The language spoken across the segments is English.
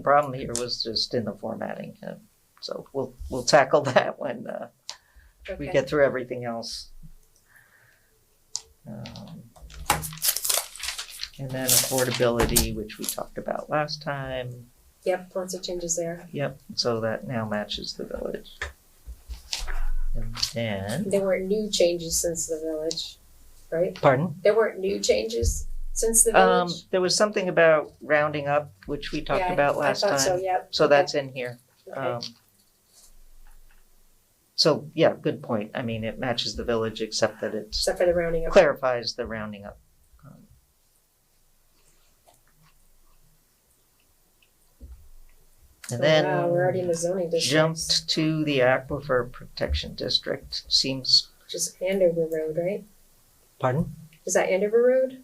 The Problem here was just in the formatting, uh, so we'll, we'll tackle that when, uh, we Okay. get through everything else. Um, And then affordability, which we talked about last time, Yep, lots of changes there. yep, so that now matches the village. And then, There weren't new changes since the village, right? pardon? There weren't new changes since the Um, village? there was something about rounding up, which we Yeah, talked I- about I last thought so, time, yep. so okay, that's in here. okay. Um, so, yeah, good point. I mean, it matches the village except that it's Except for the rounding up. clarifies the rounding up. Um, And Wow, we're already in then the zoning district, jumped to the aquifer protection district, seems, which is Andover Road, right? pardon? Is that Andover Road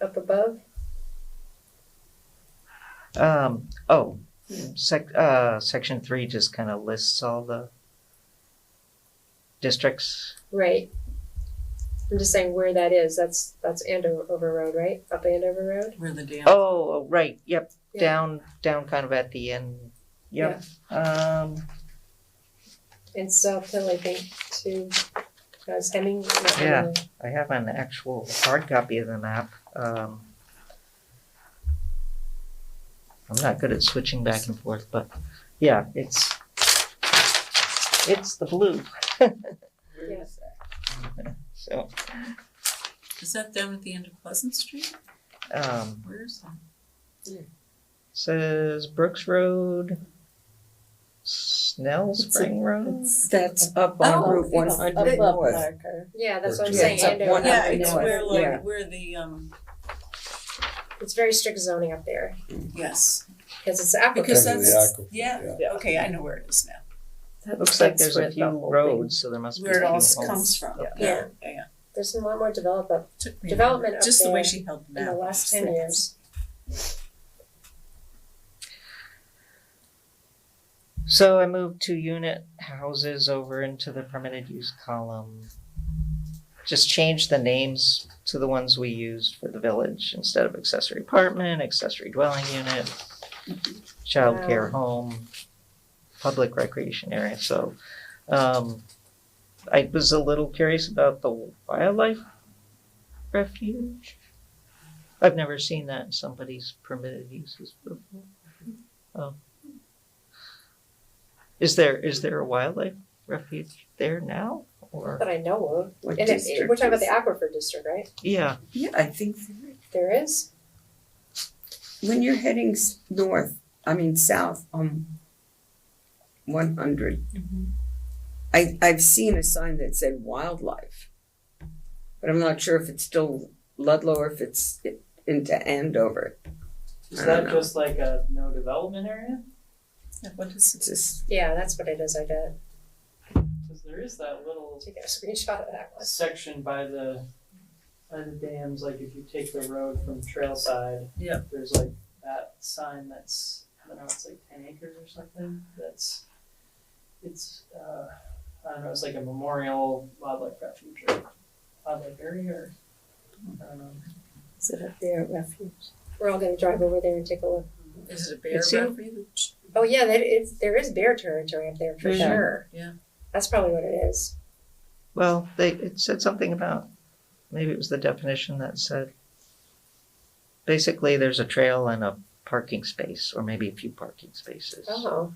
up above? Um, oh, sec, uh, section three just kind of lists all the districts. Right. I'm just saying where that is. That's, that's Andover Road, right? Up Andover Road? Where the dam. Oh, oh, right, yep, Yeah. down, down kind of at the end, yep. Um, And South Hill, I think, too. Guys, Hemming, not Yeah. Hemming. I have an actual hard copy of the map. Um, I'm not good at switching back and forth, but yeah, it's, it's the blue, Yeah. so, Is that down at the end of Pleasant Street? um, Where is that? says Brooks Road, Snell It's a- Spring Road. That's up Oh, on Route one it's hundred above north. Yeah, that's what I'm Or saying. just- Andover. One Yeah, up it's north, where yeah. like, where the, um, It's very strict zoning up there yes, because it's aquifer. because Because of the that's, aquifer, yeah, okay, I know where it is now, Looks like That's there's a where the few whole roads, so there must be a where few it all homes. comes from, Yeah. yeah, yeah. There's been a lot more develop up Took me a Development minute. up Just the way there she held the in the map. last ten years. So I moved two unit houses over into the permitted use column. Just change the names to the ones we used for the village instead of accessory apartment, accessory dwelling unit, childcare home, public recreation area, so. Um, I was a little curious about the wildlife refuge. I've never seen that in somebody's permitted uses before. Oh. Is there, is there a wildlife refuge there now, or, That I know of. What And it, district we're talking about is- the aquifer district, right? yeah, Yeah, I think, there is. There is. when you're heading s- north, I mean, south, um, one hundred. Mhm. I, I've seen a sign that said wildlife. But I'm not sure if it's still Ludlow or if it's i- into Andover. I Is don't that know. just like a no development area? Yeah, What is It's just, Yeah, that's what it is. I bet. Cause there is that little Take a screenshot of that one. section by the, by the dams, like if you take the road from Trailside. Yeah. There's like that sign that's, I don't know, it's like ten acres or something, that's, it's, uh, I don't know, it's like a memorial wildlife refuge or wildlife area or, I don't know. is it up there, refuge? We're all gonna drive over there and take a look. it, is it a bear It's you. refuge? Oh yeah, that is. There is bear territory up there for Yeah. sure. Yeah. That's probably what it is. well, they, it said something about, maybe it was the definition that said, basically, there's a trail and a parking space, or maybe a few parking spaces. Oh,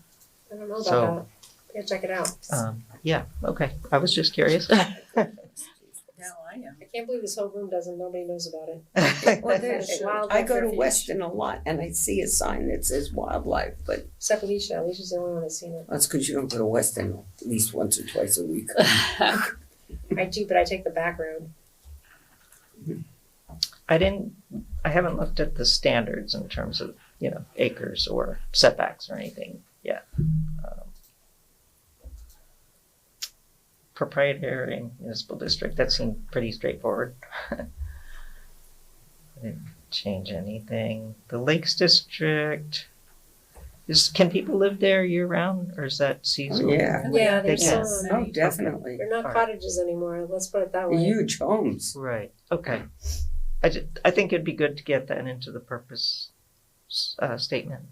I don't know about So- that. Yeah, check it out. Um, yeah, okay, I was just curious. Now I am. I can't believe this whole room doesn't. Nobody knows about it. Well, there's- there's, I Wildlife go to refuge. Weston a lot and I see a sign that says wildlife, but Except Alicia. Alicia's the only one that's seen it. that's because you don't go to Weston at least once or twice a week. I do, but I take the back road. I didn't, I haven't looked at the standards in terms of, you know, acres or setbacks or anything yet. Um, Proprietary and municipal district, that seemed pretty straightforward. I Didn't change anything. The Lakes District, is, can people live there year round or is that seasonal? yeah. Yeah, there's Yes. some. Oh, definitely. They're not Alright. cottages anymore, let's put it that way. Huge homes. Right, okay. I ju- I think it'd be good to get that into the purpose, s- uh, statement